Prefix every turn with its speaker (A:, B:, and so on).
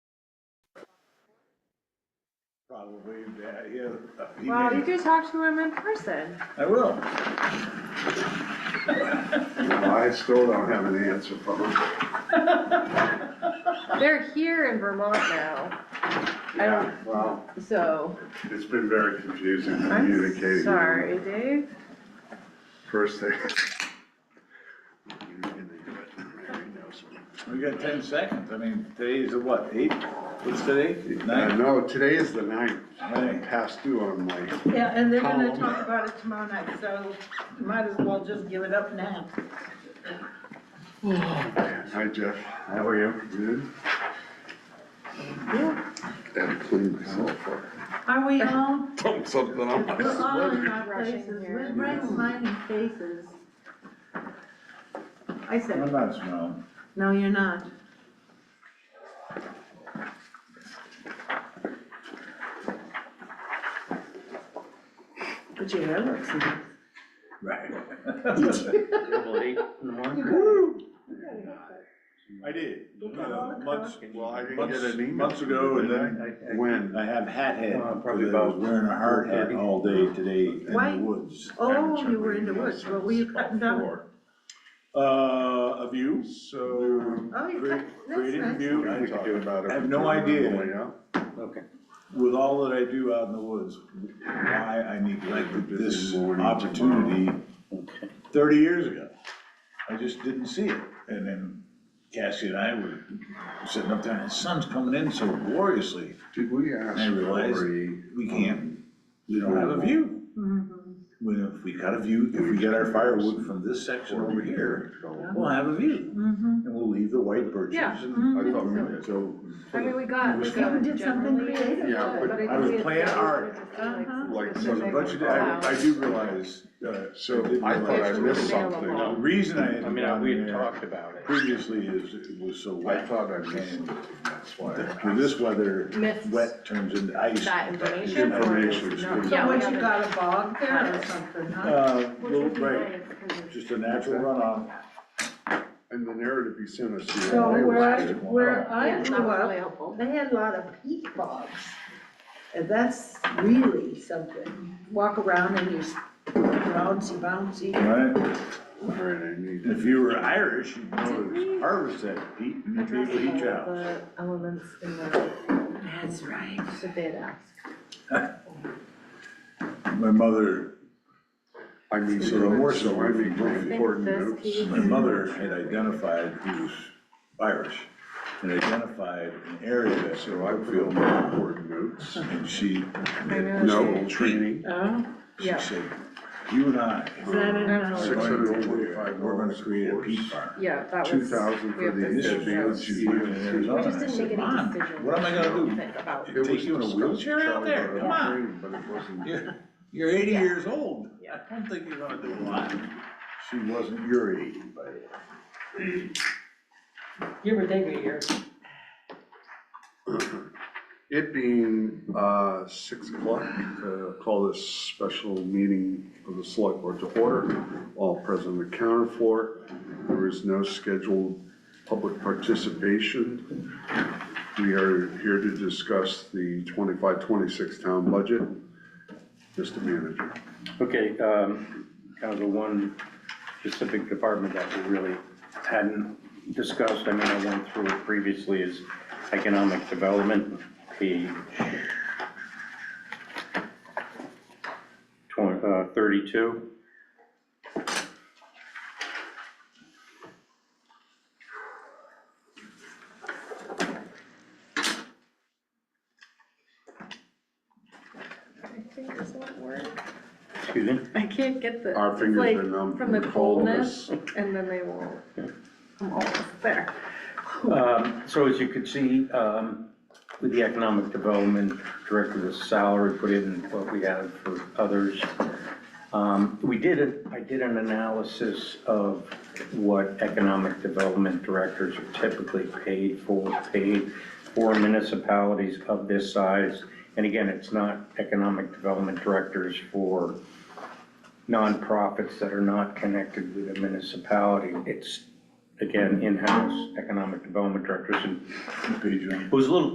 A: Probably, yeah, yeah. he
B: Wow,
A: may-
B: you could talk to him in person.
A: I will.
C: I still don't have an answer for them.
B: They're here in Vermont now,
C: Yeah, well,
B: so
C: it's been very confusing
B: I'm
C: communicating.
B: sorry, Dave.
C: First thing. You're gonna do it. Mary knows me.
A: We got ten seconds. I mean, today's the what, eight? What's today?
C: Uh,
A: Nine?
C: No, today is the ninth,
A: Right.
C: past due on my,
D: Yeah, and they're gonna
C: Column.
D: talk about it tomorrow night, so might as well just give it up now.
C: hi Jeff, how are you? Good?
E: and clean myself up,
D: Are we on?
E: dump something on my
D: We're all in
E: sweater.
D: our
B: Rushing
D: places,
B: here.
D: we're recognizing faces. I
A: I'm
D: said,
A: not smiling.
D: no, you're not. But your hair looks nice.
A: Right.
F: eight in the morning.
A: I did.
D: Look at all the
A: Months,
C: Uh, Well, I didn't get
A: months,
C: an email.
A: months ago and then
C: When?
A: I have hat head.
F: Uh, probably
A: because I was
F: about
A: Wearing a hard hat
F: 4:30.
A: all day today in
D: Why?
A: the woods.
D: Oh, you were in the woods, what were you cutting down?
A: Four. Uh, a view, so.
D: Oh, you
A: Great,
D: cut, that's
A: great
D: nice.
A: view.
C: We could do about it.
A: I have no idea.
C: Yeah.
F: Okay.
A: with all that I do out in the woods, why I neglected this
C: Morning,
A: opportunity thirty years ago. I just didn't see it, and then Cassie and I were sitting up there, and the sun's coming in so gloriously,
C: Did we ask
A: I realized-
C: Lori? um,
A: we can't, we don't have a view.
D: Mm-hmm.
A: When if we got a view, if we get our firewood from this section over here, we'll have a view,
D: Mm-hmm.
A: and we'll leave the white birches
B: Yeah. Mm-hmm.
A: and.
C: I thought we did.
A: So,
B: I mean, we got, we
A: You
B: got
D: did something
B: generally. uh,
D: creative.
C: Yeah, but
B: I think
A: I was
B: we had
A: playing
B: said we
A: art.
B: were just doing,
D: Uh-huh.
B: like,
C: Like, so
A: so the
B: specific
A: budget,
B: wow.
A: I, I do realize, uh,
C: So I thought I missed something.
A: the reason I had
F: I mean, I-
A: gone
F: we had
A: there-
F: talked about it.
A: previously is, it was so
C: I
A: wet.
C: thought I missed something, that's why. I
A: With this weather,
B: Missed
A: wet turns into ice.
B: That information.
C: Information is
B: No.
C: good.
B: Yeah,
D: So
B: we
D: what,
B: haven't-
D: you got a bog there or something, huh?
A: Uh,
B: Which
A: little,
B: would be
A: right,
B: nice, 'cause it's-
A: just a natural runoff.
C: And the narrative you sent us the
D: So
C: other day
D: where I,
C: was good.
D: where
B: yeah,
D: I
B: it's
D: grew
B: not really
D: up,
B: helpful.
D: they had a lot of peat bogs. And that's really something, walk around and you're bouncy, bouncy.
A: Right,
C: Alright, I need
A: if
C: to-
A: you were Irish, you'd know to harvest that heat and you'd
B: Address
A: the heat
B: all
A: out.
B: the elements in the,
D: That's right.
B: that they had asked.
A: My mother,
C: I mean,
A: So the
C: so,
A: horse
C: so I
A: is
C: think
A: really
C: important
B: this
C: notes.
B: key-
A: my mother had identified, he was Irish, and identified an area that she
C: So I feel more important notes.
A: and she,
B: know.
C: No training.
D: Oh,
A: she
B: Yeah.
A: said, you and I,
D: is that in,
B: Six
A: are
D: uh,
A: going to, we're gonna create a peat farm.
B: Yeah, that was.
C: Two thousand
B: we
C: for
B: have
C: the
A: This
B: this
A: is
B: thing that
C: advanced
A: what
B: was-
A: you do in Arizona.
B: We just
A: I
B: didn't
A: said,
B: make any
A: "Mom,
B: decision.
A: What am I gonna do?
B: About,
C: It
A: Take
C: was
A: you in a
C: discussed,
A: wheelchair out
C: Charlie,
A: there?
C: about
A: Come on.
C: training, But it wasn't.
A: You're, you're eighty
B: Yeah.
A: years old.
B: Yeah.
A: I don't think you're gonna do a lot. She wasn't your age, but.
G: Give or take a year.
C: It being uh, six o'clock, uh, call this special meeting of the select board to order. All present at the counter floor. There is no scheduled public participation. We are here to discuss the 25-26 town budget. Mr. Manager.
F: Okay, um, kind of the one specific department that we really hadn't discussed, I mean, I went through it previously, is economic development, page twen- uh, thirty-two.
B: I think it's not work.
F: Excuse me?
B: I can't get the,
C: Our
B: it's
C: fingers
B: like,
C: are numb
B: from the
C: from all of us.
B: coldness, and then they won't. I'm almost there.
F: Um, So as you could see, um, with the economic development director, the salary put in what we had for others. Um, We did, it. I did an analysis of what economic development directors are typically paid for, paid for municipalities of this size. And again, it's not economic development directors for nonprofits that are not connected with a municipality. It's, again, in-house economic development directors. And
A: Page one.
F: it was a little